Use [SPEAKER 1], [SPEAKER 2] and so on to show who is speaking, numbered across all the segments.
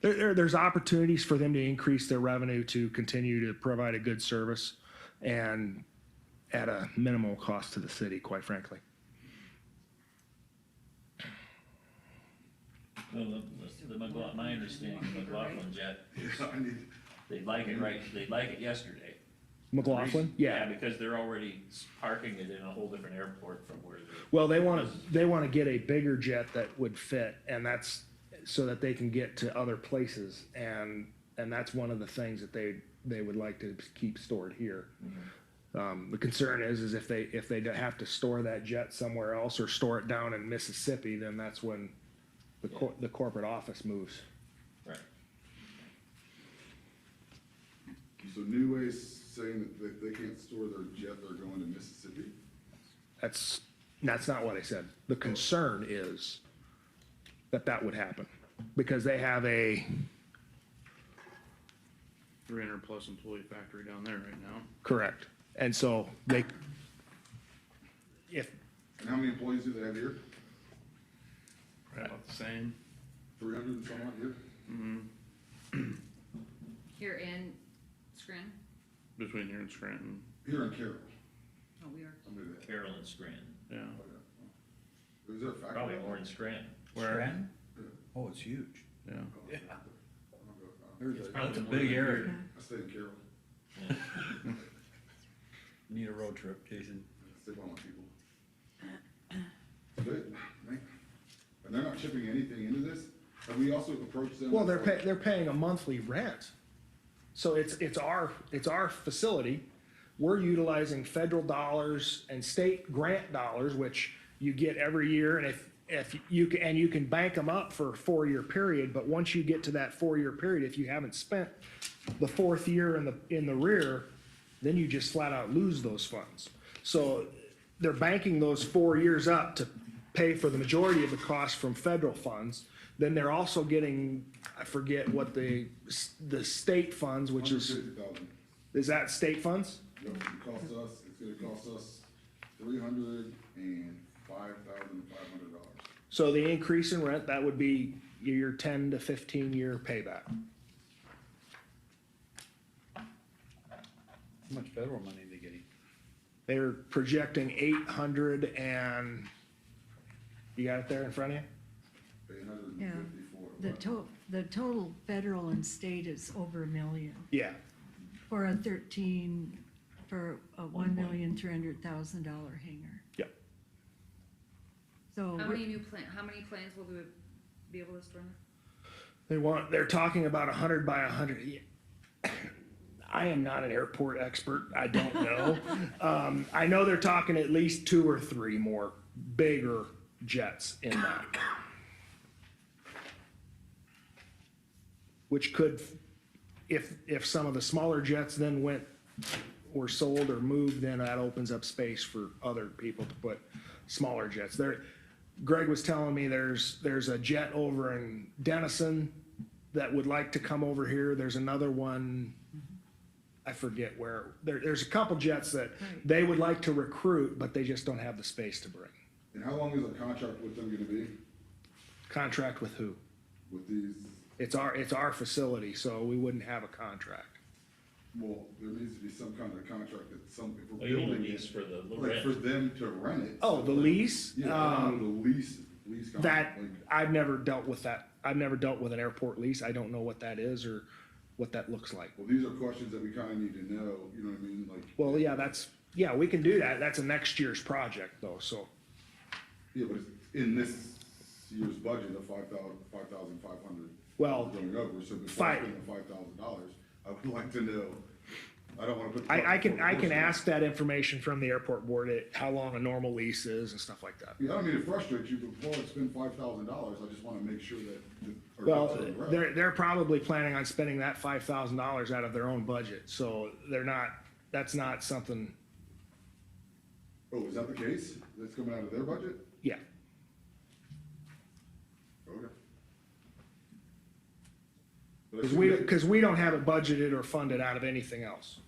[SPEAKER 1] there, there, there's opportunities for them to increase their revenue to continue to provide a good service and at a minimal cost to the city, quite frankly.
[SPEAKER 2] Well, the- the McLaughlin, my understanding, of McLaughlin jet,
[SPEAKER 3] I need,
[SPEAKER 2] they'd like it right, they'd like it yesterday.
[SPEAKER 1] McLaughlin? Yeah.
[SPEAKER 2] because they're already s- parking it in a whole different airport from where they're.
[SPEAKER 1] Well, they want to, they want to get a bigger jet that would fit and that's so that they can get to other places. And, and that's one of the things that they, they would like to keep stored here. Um, the concern is, is if they, if they have to store that jet somewhere else or store it down in Mississippi, then that's when the cor- the corporate office moves.
[SPEAKER 2] Right.
[SPEAKER 3] so New Way's saying that they, they can't store their jet, they're going to Mississippi?
[SPEAKER 1] That's, that's not what I said. The concern is that that would happen because they have a,
[SPEAKER 4] three hundred plus employee factory down there right now.
[SPEAKER 1] correct. And so they, if,
[SPEAKER 3] And how many employees do they have here?
[SPEAKER 4] Right about the same.
[SPEAKER 3] Three hundred and some odd here?
[SPEAKER 5] Here in Scranton?
[SPEAKER 4] Between here and Scranton,
[SPEAKER 3] Here in Carroll,
[SPEAKER 5] Oh, we are.
[SPEAKER 3] I knew that.
[SPEAKER 2] Carroll and Scranton,
[SPEAKER 4] yeah.
[SPEAKER 3] Oh, yeah. Is there a factory?
[SPEAKER 2] probably more in Scranton.
[SPEAKER 6] Scranton? Oh, it's huge.
[SPEAKER 4] Yeah.
[SPEAKER 3] Oh, okay. I don't go- uh,
[SPEAKER 6] There's a-
[SPEAKER 2] probably
[SPEAKER 6] That's a
[SPEAKER 2] more
[SPEAKER 6] big
[SPEAKER 2] than
[SPEAKER 6] area.
[SPEAKER 3] I stay in Carroll,
[SPEAKER 6] Need a road trip, Jason.
[SPEAKER 3] I stay by my people. Good, man. And they're not shipping anything into this? Have we also approached them?
[SPEAKER 1] well, they're pay, they're paying a monthly rent. So it's, it's our, it's our facility. We're utilizing federal dollars and state grant dollars, which you get every year. And if, if you, ca- and you can bank them up for a four-year period, but once you get to that four-year period, if you haven't spent the fourth year in the, in the rear, then you just flat out lose those funds. So they're banking those four years up to pay for the majority of the cost from federal funds. Then they're also getting, I forget what the, s- the state funds, which
[SPEAKER 3] Hundred
[SPEAKER 1] is,
[SPEAKER 3] fifty thousand.
[SPEAKER 1] is that state funds?
[SPEAKER 3] Yep, it costs us, it's gonna cost us three hundred and five thousand five hundred dollars.
[SPEAKER 1] So the increase in rent, that would be your ten to fifteen year payback.
[SPEAKER 6] How much federal money they getting?
[SPEAKER 1] They're projecting eight hundred and, you got it there in front of you?
[SPEAKER 3] Eight hundred
[SPEAKER 7] Yeah.
[SPEAKER 3] and fifty-four.
[SPEAKER 7] The to, the total federal and state is over a million,
[SPEAKER 1] Yeah,
[SPEAKER 7] for a thirteen, for a one million, three hundred thousand dollar hanger.
[SPEAKER 1] Yep.
[SPEAKER 5] How
[SPEAKER 7] So, we're-
[SPEAKER 5] many new plan, how many planes will we be able to store? in
[SPEAKER 1] they want, they're talking about a hundred by a hundred. Yeah. I am not an airport expert, I don't know. Um, I know they're talking at least two or three more bigger jets in that. Which could, if, if some of the smaller jets then went were sold or moved, then that opens up space for other people to put smaller jets. There, Greg was telling me there's, there's a jet over in Denison that would like to come over here. There's another one, I forget where, there, there's a couple jets that they would like to recruit, but they just don't have the space to bring.
[SPEAKER 3] And how long is our contract with them gonna be,
[SPEAKER 1] Contract with who?
[SPEAKER 3] with these,
[SPEAKER 1] It's our, it's our facility, so we wouldn't have a contract.
[SPEAKER 3] well, there needs to be some kind of contract that some, if
[SPEAKER 2] Oh,
[SPEAKER 3] we're
[SPEAKER 2] you mean
[SPEAKER 3] building
[SPEAKER 2] lease
[SPEAKER 3] it.
[SPEAKER 2] for the
[SPEAKER 3] Like for
[SPEAKER 2] rent?
[SPEAKER 3] them to rent it.
[SPEAKER 1] Oh, the lease?
[SPEAKER 3] Yeah,
[SPEAKER 1] Um,
[SPEAKER 3] the lease, lease
[SPEAKER 1] That,
[SPEAKER 3] contract, like,
[SPEAKER 1] I've never dealt with that. I've never dealt with an airport lease. I don't know what that is or what that looks like.
[SPEAKER 3] well, these are questions that we kinda need to know, you know what I mean, like.
[SPEAKER 1] Well, yeah, that's, yeah, we can do that. That's a next year's project though, so.
[SPEAKER 3] Yeah, but it's in this year's budget of five thousand, five thousand five hundred.
[SPEAKER 1] Well,
[SPEAKER 3] Going over, so before I
[SPEAKER 1] five-
[SPEAKER 3] spend the five thousand dollars, I would like to know, I don't wanna put. the
[SPEAKER 1] I, I
[SPEAKER 3] cart
[SPEAKER 1] can,
[SPEAKER 3] before
[SPEAKER 1] I
[SPEAKER 3] the
[SPEAKER 1] can
[SPEAKER 3] horse.
[SPEAKER 1] ask that information from the airport board, at how long a normal lease is and stuff like that.
[SPEAKER 3] Yeah, I don't mean to frustrate you, but before I spend five thousand dollars, I just wanna make sure that. the- our ducks
[SPEAKER 1] Well,
[SPEAKER 3] are in a row.
[SPEAKER 1] they're, they're probably planning on spending that five thousand dollars out of their own budget, so they're not, that's not something,
[SPEAKER 3] Oh, is that the case? That's coming out of their budget?
[SPEAKER 1] yeah.
[SPEAKER 3] Okay. But I
[SPEAKER 1] Cause
[SPEAKER 3] assume
[SPEAKER 1] we,
[SPEAKER 3] they-
[SPEAKER 1] cause we don't have it budgeted or funded out of anything else.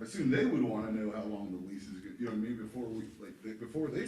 [SPEAKER 3] assume they would wanna know how long the lease is, gonna- you know what I mean, before we, like, they- before they